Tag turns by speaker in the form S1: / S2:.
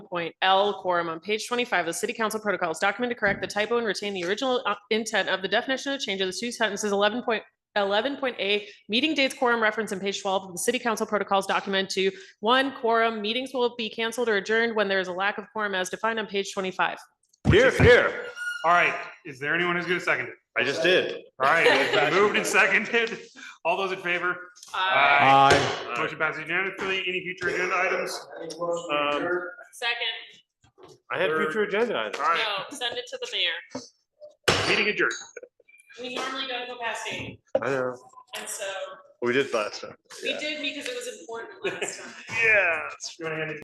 S1: point L quorum on page twenty-five of the city council protocols document to correct the typo and retain the original uh, intent of the definition of change of the two sentences eleven point eleven point A, meeting dates quorum reference in page twelve of the city council protocols document to one quorum, meetings will be canceled or adjourned when there is a lack of quorum as defined on page twenty-five.
S2: Here, here.
S3: All right, is there anyone who's gonna second it?
S2: I just did.
S3: All right, it's been moved and seconded. All those in favor? Aye.
S2: Aye.
S3: Motion passes unanimously. Any future agenda items? Um,
S1: Second,
S2: I had future agenda items.
S3: All right,
S1: send it to the mayor.
S3: meeting adjourned.
S1: We normally don't go past eight,
S2: I know.
S1: and so
S2: We did last time. Yeah.
S1: did because it was important last time.
S3: Yeah. You wanna hand it